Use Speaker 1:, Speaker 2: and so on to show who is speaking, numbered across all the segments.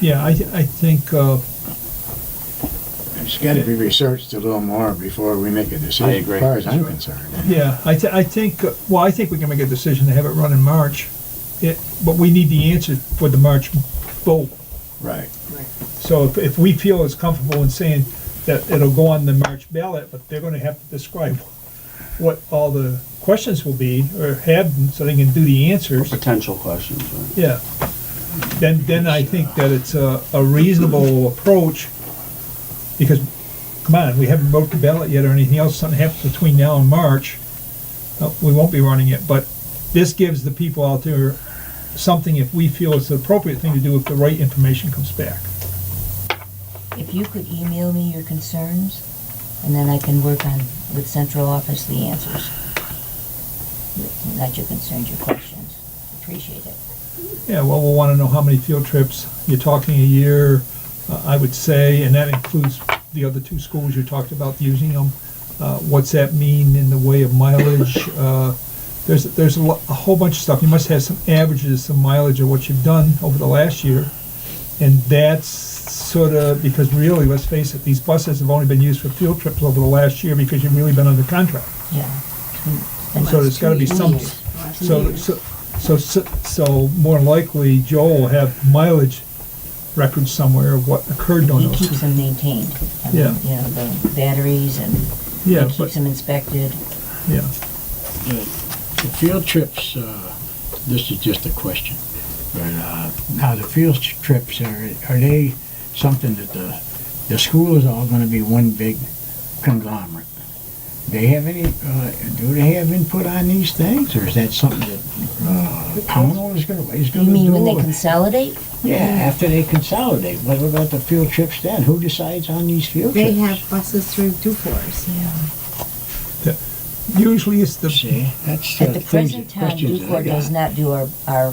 Speaker 1: Yeah, I, th- I think, uh,
Speaker 2: It's got to be researched a little more before we make a decision.
Speaker 3: I agree.
Speaker 2: As far as I'm concerned.
Speaker 1: yeah, I, th- I think, uh, well, I think we can make a decision to have it run in March. It, but we need the answer for the March vote.
Speaker 2: Right.
Speaker 1: So if, if we feel as comfortable in saying that it'll go on the March ballot, but they're gonna have to describe what all the questions will be, or have, them so they can do the answers,
Speaker 3: Potential questions, right?
Speaker 1: yeah. Then, then I think that it's a, a reasonable approach, because, come on, we haven't voted the ballot yet or anything else, something happens between now and March, uh, we won't be running it, but this gives the people out there something if we feel it's the appropriate thing to do if the right information comes back.
Speaker 4: If you could email me your concerns, and then I can work on, with central office, the answers. Not your concerns, your questions. Appreciate it.
Speaker 1: Yeah, well, we'll want to know how many field trips. You're talking a year, uh, I would say, and that includes the other two schools you talked about using them. Uh, What's that mean in the way of mileage? Uh, There's, there's a lo- a whole bunch of stuff. You must have some averages, some mileage of what you've done over the last year. And that's sort of, because really, let's face it, these buses have only been used for field trips over the last year because you've really been under contract.
Speaker 4: Yeah.
Speaker 1: And so there's gotta be
Speaker 4: Two
Speaker 1: some,
Speaker 4: years. Hmm.
Speaker 1: so, so, so, so more likely Joe will have mileage records somewhere of what occurred on
Speaker 4: He
Speaker 1: those.
Speaker 4: keeps them maintained. I mean,
Speaker 1: Yeah.
Speaker 4: You know, the batteries and he
Speaker 1: Yeah,
Speaker 4: keeps
Speaker 1: but,
Speaker 4: them inspected.
Speaker 1: yeah,
Speaker 2: The the field trips, uh, this is just a question, but uh, now the field trips, are are they something that the, the school is all going to be one big conglomerate? They have any, uh, do they have input on these things, or is that something that uh, Pownell is going to, is
Speaker 4: You
Speaker 2: going to do?
Speaker 4: mean when they consolidate?
Speaker 2: Yeah, after they consolidate, what about the field trips then? Who decides on these field
Speaker 5: They
Speaker 2: trips?
Speaker 5: have buses through Dufours.
Speaker 1: usually it's the,
Speaker 2: See, that's
Speaker 4: At
Speaker 2: uh,
Speaker 4: the
Speaker 2: things-
Speaker 4: present time,
Speaker 2: questions that I
Speaker 4: Newport does
Speaker 2: got.
Speaker 4: not do our, our,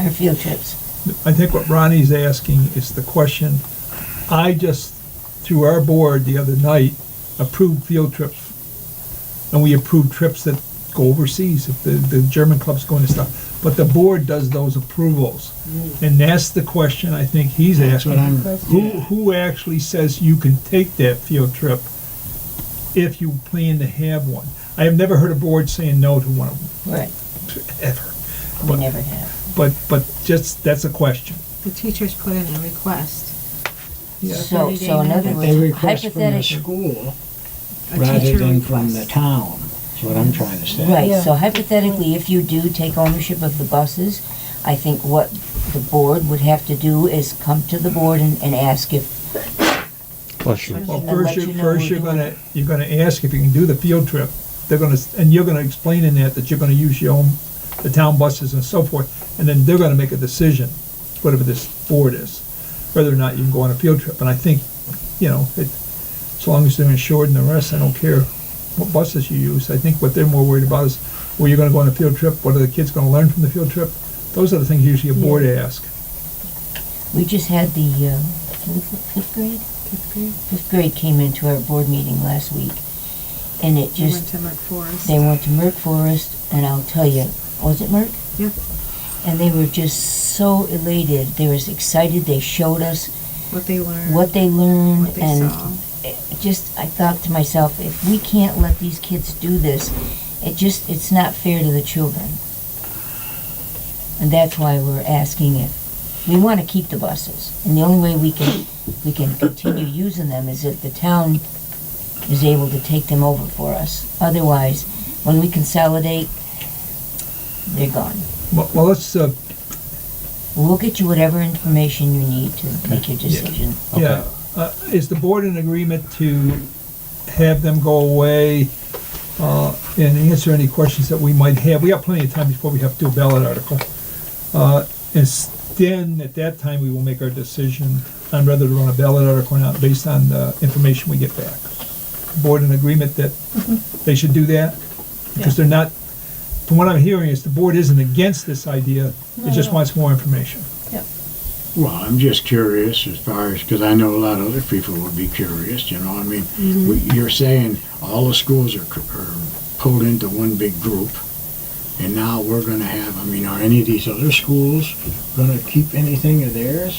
Speaker 4: our field trips.
Speaker 1: I think what Ronnie's asking is the question. I just, through our board the other night, approved field trips. And we approved trips that go overseas, if the, the German club's going to stuff. But the board does those approvals. And that's the question I think he's
Speaker 2: That's
Speaker 1: asking.
Speaker 2: what I'm,
Speaker 1: Who, who actually says you can take that field trip if you plan to have one? I have never heard a board saying no to one of them,
Speaker 4: Right.
Speaker 1: ever.
Speaker 4: We
Speaker 1: But-
Speaker 4: never have.
Speaker 1: But, but just, that's a question.
Speaker 5: The teachers put in a request.
Speaker 4: So,
Speaker 5: 30-day
Speaker 4: so in other
Speaker 5: notice.
Speaker 2: they
Speaker 4: words,
Speaker 2: request from the
Speaker 4: hypothetically,
Speaker 2: school
Speaker 5: A
Speaker 2: rather
Speaker 5: teacher
Speaker 2: than from the
Speaker 5: request.
Speaker 2: town, is what I'm trying to say.
Speaker 4: Right, so hypothetically, if you do take ownership of the buses, I think what the board would have to do is come to the board and, and ask if,
Speaker 3: Bless you.
Speaker 1: Well,
Speaker 4: I'll
Speaker 1: first
Speaker 4: let
Speaker 1: you're,
Speaker 4: you know
Speaker 1: first
Speaker 4: we're
Speaker 1: you're
Speaker 4: doing
Speaker 1: gonna, you're gonna ask if you can do the field trip. They're gonna, s- and you're gonna explain in that that you're gonna use your own, the town buses and so forth. And then they're gonna make a decision, whatever this board is, whether or not you can go on a field trip. And I think, you know, it, as long as they're insured and the rest, I don't care what buses you use. I think what they're more worried about is, where you're gonna go on a field trip, what are the kids gonna learn from the field trip? Those are the things usually a board asks.
Speaker 4: we just had the, uh, fifth fifth grade? Fifth grade? Fifth grade came into our board meeting last week, and it
Speaker 5: They went
Speaker 4: just,
Speaker 5: to Mark Forest.
Speaker 4: they went to Merck Forest, and I'll tell you, was it Merck?
Speaker 5: Yeah.
Speaker 4: And they were just so elated, they was excited, they showed us
Speaker 5: What they learned.
Speaker 4: what they
Speaker 5: Mm. what
Speaker 4: learned,
Speaker 5: they
Speaker 4: and
Speaker 5: saw.
Speaker 4: it just I thought to myself, if we can't let these kids do this, it just it's not fair to the children. And that's why we're asking if we want to keep the buses, and the only way we can we can continue using them is if the town is able to take them over for us. Otherwise, when we consolidate, they're gone.
Speaker 1: Well, well, let's, uh,
Speaker 4: We'll get you whatever information you need to make your decision.
Speaker 1: Yeah, uh, is the board in agreement to have them go away, uh, and answer any questions that we might have? We got plenty of time before we have to do a ballot article. Uh, and s- then, at that time, we will make our decision on whether to run a ballot article or not, based on the information we get back. Board in agreement that they should do that? Because they're not, from what I'm hearing, is the board isn't against this idea, it just wants more information.
Speaker 2: Well, I'm just curious as far as, because I know a lot of other people would be curious, you know, I mean,
Speaker 4: Mm-hmm.
Speaker 2: we- you're saying all the schools are, c- are pulled into one big group, and now we're gonna have, I mean, are any of these other schools gonna keep anything of theirs,